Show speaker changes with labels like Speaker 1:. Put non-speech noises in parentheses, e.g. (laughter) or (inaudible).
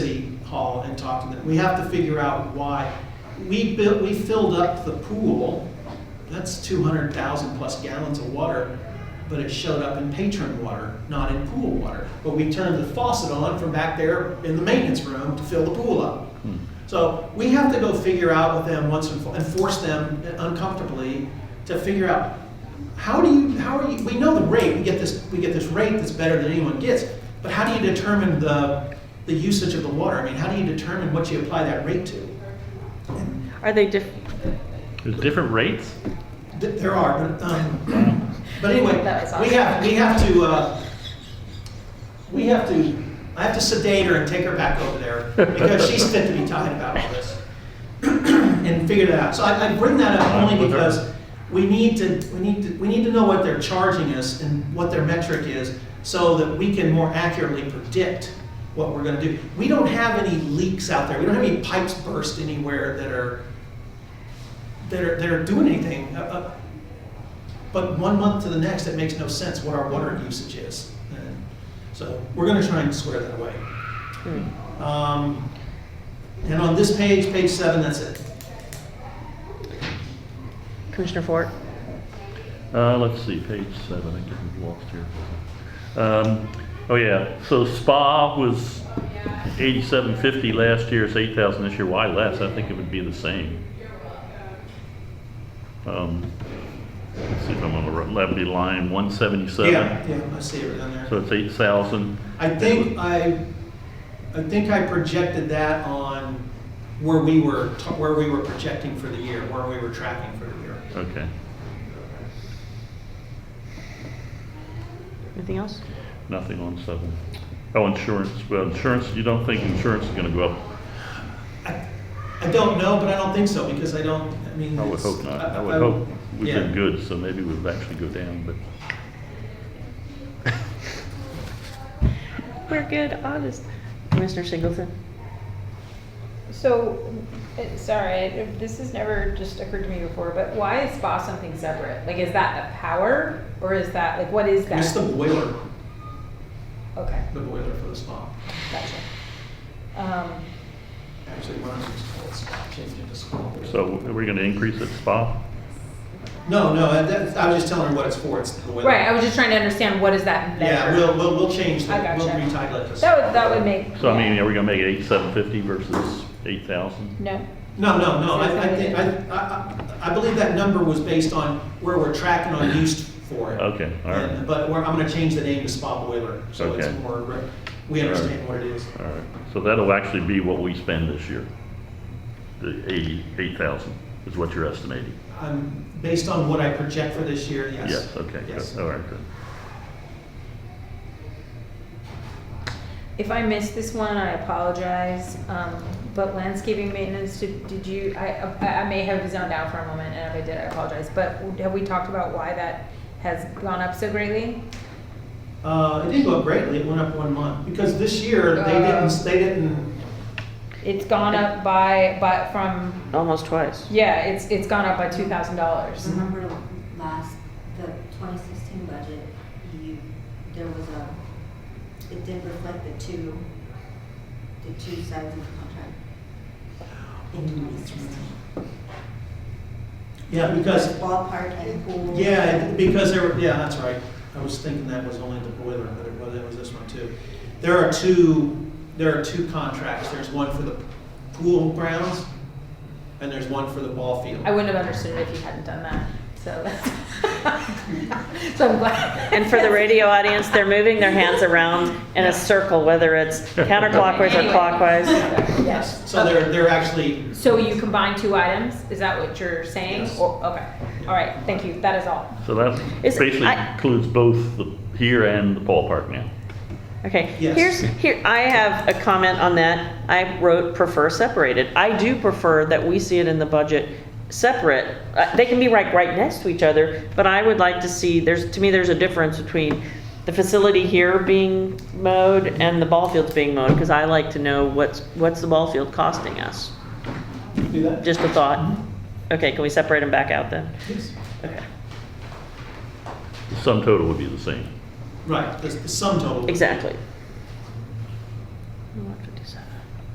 Speaker 1: Hall and talk to them. We have to figure out why. We built, we filled up the pool, that's two hundred thousand plus gallons of water, but it showed up in patron water, not in pool water. But we turned the faucet on from back there in the maintenance room to fill the pool up. So we have to go figure out with them once and for, and force them uncomfortably to figure out, how do you, how are you, we know the rate, we get this, we get this rate that's better than anyone gets, but how do you determine the, the usage of the water? I mean, how do you determine what you apply that rate to?
Speaker 2: Are they diff,
Speaker 3: There's different rates?
Speaker 1: Th- There are, but, um, but anyway,
Speaker 2: That was
Speaker 1: we
Speaker 2: awesome.
Speaker 1: have, we have to, uh, we have to, I have to sedate her and take her back over there because she's fit to be tied about all this. And figure that out. So I, I bring that up only
Speaker 3: With her.
Speaker 1: because we need to, we need to, we need to know what they're charging us and what their metric is so that we can more accurately predict what we're gonna do. We don't have any leaks out there. We don't have any pipes burst anywhere that are, that are, that are doing anything. Uh, uh, But one month to the next, it makes no sense what our water usage is. And So we're gonna try and square that away. Um, And on this page, page seven, that's it.
Speaker 2: Commissioner Fort?
Speaker 3: Uh, let's see, page seven, I get lost here. Um, oh yeah, so spa was eighty-seven fifty last year, it's eight thousand this year, why less? I think it would be the same. Um, let's see if I'm on the right, that'd be line one
Speaker 1: Yeah,
Speaker 3: seventy-seven,
Speaker 1: yeah, I see it down there.
Speaker 3: so it's eight thousand.
Speaker 1: I think I, I think I projected that on where we were, t- where we were projecting for the year, where we were tracking for the year.
Speaker 3: Okay,
Speaker 2: Anything else?
Speaker 3: nothing on seven. Oh, insurance, well, insurance, you don't think insurance is gonna go up
Speaker 1: I I don't know, but I don't think so, because I don't, I mean.
Speaker 3: I would
Speaker 1: it's-
Speaker 3: hope not. I
Speaker 1: I-
Speaker 3: would hope we've
Speaker 1: yeah.
Speaker 3: been good, so maybe we'll actually go down, but
Speaker 2: We're good, honest. Commissioner Singleton?
Speaker 4: So, it- sorry, it- this has never just occurred to me before, but why is spa something separate? Like, is that the power or is that, like, what is
Speaker 1: It's the
Speaker 4: that?
Speaker 1: boiler,
Speaker 4: Okay,
Speaker 1: the boiler for the spa.
Speaker 4: gotcha. Um,
Speaker 1: Actually, one of them's called spa, changed it to spa.
Speaker 3: so we're gonna increase at spa?
Speaker 1: No, no, I- that, I was just telling her what it's for, it's the boiler.
Speaker 4: Right, I was just trying to understand what is that
Speaker 1: Yeah, we'll,
Speaker 4: measure?
Speaker 1: we'll, we'll change
Speaker 4: I
Speaker 1: that, we'll
Speaker 4: gotcha.
Speaker 1: retitle it to.
Speaker 4: That would, that would make.
Speaker 3: So I mean, are we gonna make it eight seven fifty versus eight thousand?
Speaker 4: No,
Speaker 1: No, no, no, I, I think, I, I, I- I believe that number was based on where we're tracking on use for it.
Speaker 3: Okay, all right.
Speaker 1: And- But we're, I'm gonna change the name to spa boiler, so it's
Speaker 3: Okay.
Speaker 1: more, re- we
Speaker 3: All right.
Speaker 1: understand what it is.
Speaker 3: All right, so that'll actually be what we spend this year. The eighty, eight thousand is what you're estimating?
Speaker 1: I'm, Um, based on what I project for this year, yes.
Speaker 3: Yes, okay, good,
Speaker 1: Yes.
Speaker 3: all right, good.
Speaker 4: if I missed this one, I apologize, um, but landscaping maintenance, did did you, I, I I may have zoned out for a moment, and if I did, I apologize, but have we talked about why that has gone up so greatly?
Speaker 1: Uh, it did go up greatly, it went up one month, because this year, they didn't, they didn't,
Speaker 4: It's gone up by, by, from,
Speaker 2: Almost twice.
Speaker 4: yeah, it's, it's gone up by two thousand dollars.
Speaker 2: Mm-hmm.
Speaker 5: Remember last, the 2016 budget, you, there was a, it did reflect the two, the two sides of the contract in 2016.
Speaker 1: yeah, because,
Speaker 5: Ballpark and pool.
Speaker 1: yeah, it- because there, were- yeah, that's right. I was thinking that was only the boiler, but it was, it was this one too. There are two, there are two contracts, there's one for the pool grounds, and there's one for the ball field.
Speaker 4: I wouldn't have understood it if you hadn't done that, so (laughs) that's, so I'm glad.
Speaker 2: And for the radio audience, they're moving their hands around in a circle, whether it's counterclockwise or
Speaker 4: Anyway.
Speaker 2: clockwise.
Speaker 4: Yes.
Speaker 1: So they're, they're actually,
Speaker 4: So you combine two items, is that what you're saying?
Speaker 1: Yes.
Speaker 4: Or- Okay, all right, thank you, that is all.
Speaker 3: So that
Speaker 2: Is-
Speaker 3: basically
Speaker 2: I-
Speaker 3: includes both the here and the ballpark now.
Speaker 2: Okay,
Speaker 1: Yes.
Speaker 2: here's, here, I have a comment on that. I wrote prefer separated. I do prefer that we see it in the budget separate. Uh, They can be right, right next to each other, but I would like to see, there's, to me, there's a difference between the facility here being mowed and the ball fields being mowed, because I like to know what's, what's the ball field costing us?
Speaker 1: do that?
Speaker 2: Just a thought. Okay, can we separate them back out then?
Speaker 1: Yes.
Speaker 2: Okay,
Speaker 3: The sum total would be the same.
Speaker 1: Right, the, the sum total.
Speaker 2: exactly.